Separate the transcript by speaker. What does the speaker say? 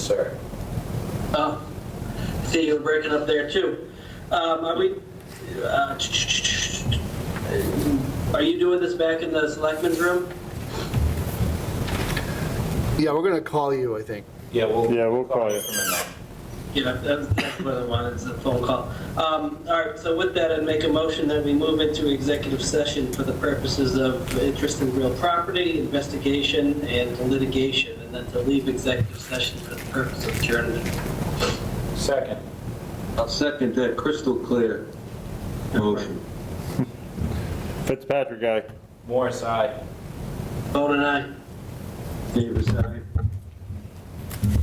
Speaker 1: sir.
Speaker 2: Oh, see, you're breaking up there too. Um, are we, uh, are you doing this back in the selectmen's room?
Speaker 3: Yeah, we're gonna call you, I think.
Speaker 1: Yeah, we'll.
Speaker 4: Yeah, we'll call you.
Speaker 1: from in there.
Speaker 2: Yeah, that's, that's what I wanted, is a phone call. Um, all right, so with that, I'd make a motion that we move into executive session for the purposes of interest in real property, investigation, and litigation, and then to leave executive session for the purpose of adjournment.
Speaker 1: Second.
Speaker 5: I'll second that crystal clear motion.
Speaker 4: Fitzpatrick guy.
Speaker 1: Morris, aye.
Speaker 2: Bone and I.
Speaker 5: Davis, aye.